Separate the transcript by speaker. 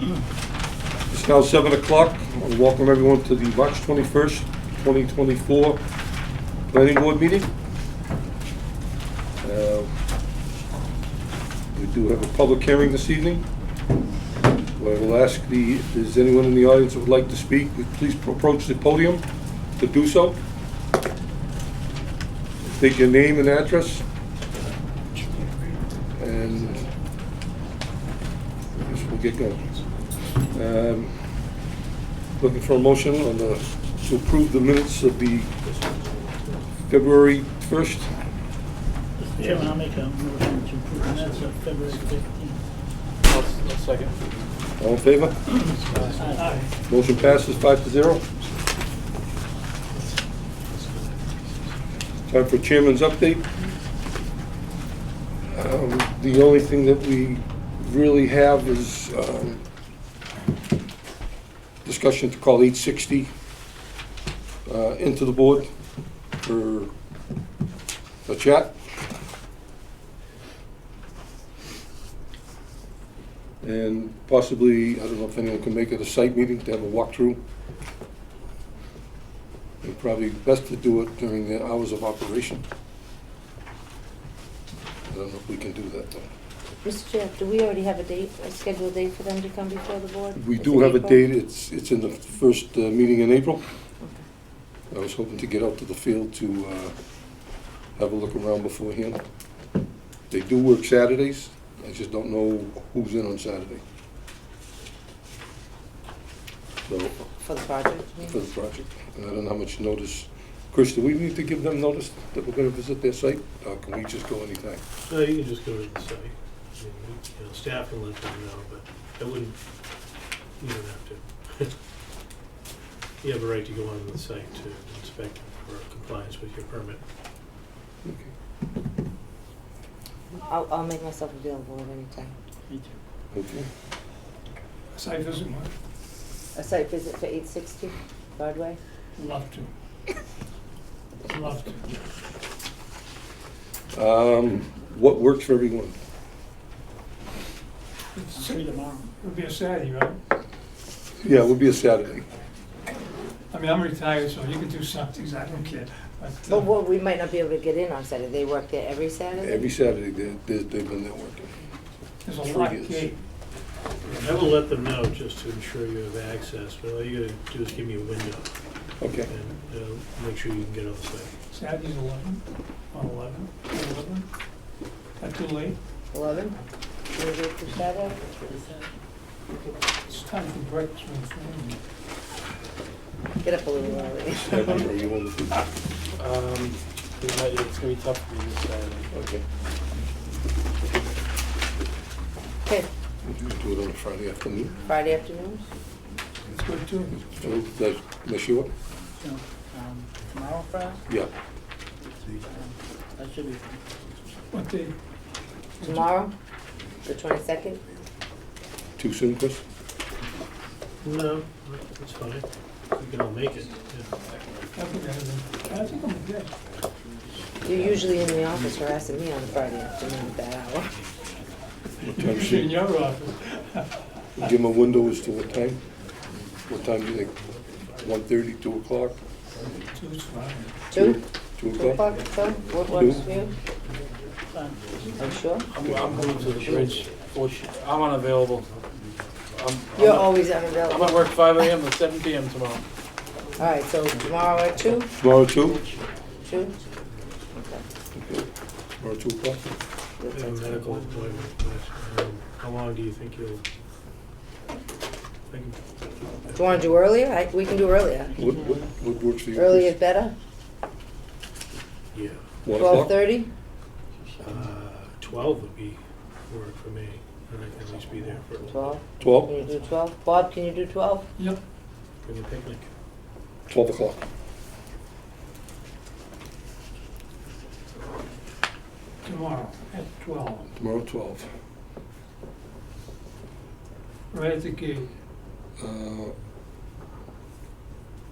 Speaker 1: It's now seven o'clock. I want to Welcome everyone to the March twenty-first, twenty twenty-four planning board meeting. Uh, We do have a public hearing this evening. I will ask the, is anyone in the audience that would like to speak, please approach the podium to do so. State your name and address. And I guess we'll get going. Um, Looking for a motion on the, to approve the minutes of the February 1st.
Speaker 2: Mr. Chairman, I'll make a motion to approve the minutes of February 15th.
Speaker 3: I'll, I'll second.
Speaker 1: All in favor?
Speaker 2: Aye.
Speaker 1: Motion passes five to zero. Time for chairman's update. Um, The only thing that we really have is um, discussion to call 860 uh, into the board for a chat. And possibly, I don't know if anyone can make it a site meeting to have a walkthrough. It'd probably best to do it during the hours of operation. I don't know if we can do that, though.
Speaker 4: Mr. Chair, do we already have a date, a scheduled date for them to come before the board?
Speaker 1: We
Speaker 4: Is
Speaker 1: do
Speaker 4: it
Speaker 1: have a
Speaker 4: April?
Speaker 1: date, it's, it's in the first uh, meeting in April.
Speaker 4: Okay.
Speaker 1: I was hoping to get out to the field to uh, have a look around beforehand. They do work Saturdays, I just don't know who's in on Saturday. So,
Speaker 4: For the project, you mean?
Speaker 1: for the project, and I don't know how much notice. Chris, do we need to give them notice that we're gonna visit their site, or can we just go anytime?
Speaker 5: No, you can just go to the site. I mean, you know, Staff can let them know, but I wouldn't, you don't have to. You have a right to go onto the site to inspect for compliance with your permit.
Speaker 1: Okay.
Speaker 4: I'll, I'll make myself available at any time.
Speaker 2: Me too.
Speaker 1: Okay.
Speaker 6: Site visit,
Speaker 4: A site visit for eight sixty Broadway?
Speaker 6: I'd love to. Love to.
Speaker 1: Um, what works for everyone?
Speaker 2: I'm
Speaker 6: It's-
Speaker 2: free
Speaker 6: It
Speaker 2: tomorrow.
Speaker 6: would be a Saturday, right?
Speaker 1: Yeah, it would be a Saturday.
Speaker 6: I mean, I'm retired, so you could do something, I don't care. But, uh,
Speaker 4: But what, we might not be able to get in on Saturday, they work there every Saturday?
Speaker 1: Every Saturday, they, they- they've been there working.
Speaker 6: There's a
Speaker 1: Three
Speaker 6: locked
Speaker 1: years.
Speaker 6: gate.
Speaker 5: I will let them know just to ensure you have access, but all you gotta do is give me a window
Speaker 1: Okay,
Speaker 5: and uh, make sure you can get on the site.
Speaker 6: Saturday's eleven, on eleven, eleven. Not too late.
Speaker 4: Eleven? You'll do it for Saturday?
Speaker 6: It's time for breakfast. my friend.
Speaker 4: Get up a little early.
Speaker 1: Saturday, or you want to do,
Speaker 3: Um, it might- it's gonna be tough for me this Saturday.
Speaker 1: okay.
Speaker 4: Okay,
Speaker 1: Would you do it on a Friday afternoon?
Speaker 4: Friday afternoons?
Speaker 6: It's good too.
Speaker 1: Does that mess you up?
Speaker 2: So, um, tomorrow, Friday?
Speaker 1: Yeah,
Speaker 2: That should be fine.
Speaker 6: What day?
Speaker 4: Tomorrow, the twenty-second?
Speaker 1: too soon, Chris?
Speaker 5: No, that's fine. We can all make it. yeah.
Speaker 6: I forgot it. I think I'm good.
Speaker 4: You're usually in the office harassing me on Friday afternoon at that hour.
Speaker 1: What time
Speaker 6: Usually
Speaker 1: should,
Speaker 6: in your office.
Speaker 1: give them a window as to what time? What time do you think? One thirty, two o'clock?
Speaker 6: Two's fine.
Speaker 4: Two?
Speaker 1: Two
Speaker 4: Two
Speaker 1: o'clock?
Speaker 4: o'clock, so, what works for you?
Speaker 2: Fine.
Speaker 4: I'm sure.
Speaker 3: I'm, I'm going to the bridge. Bullshit. I'm unavailable. I'm, I'm
Speaker 4: You're
Speaker 3: at-
Speaker 4: always
Speaker 3: I'm
Speaker 4: unavailable.
Speaker 3: at work five AM to seven PM tomorrow.
Speaker 4: All right, so tomorrow at two,
Speaker 1: Tomorrow, two?
Speaker 4: two?
Speaker 1: Tomorrow, two o'clock?
Speaker 5: I have a medical appointment, but um, how long do you think you'll? I can
Speaker 4: Do you wanna do earlier? I, we can do earlier.
Speaker 1: What, what, what works for you?
Speaker 4: Earlier is
Speaker 1: Chris?
Speaker 4: better,
Speaker 5: Yeah,
Speaker 1: One
Speaker 4: twelve
Speaker 1: o'clock?
Speaker 4: thirty?
Speaker 5: uh, twelve would be work for me, and I can at least be there for
Speaker 1: Oh.
Speaker 4: Twelve, can
Speaker 1: Twelve?
Speaker 4: you do twelve? Bob, can you do twelve?
Speaker 6: Yep.
Speaker 5: bring a picnic.
Speaker 1: Twelve o'clock.
Speaker 6: Tomorrow at twelve,
Speaker 1: Tomorrow, twelve.
Speaker 6: right at the gate.
Speaker 1: Uh,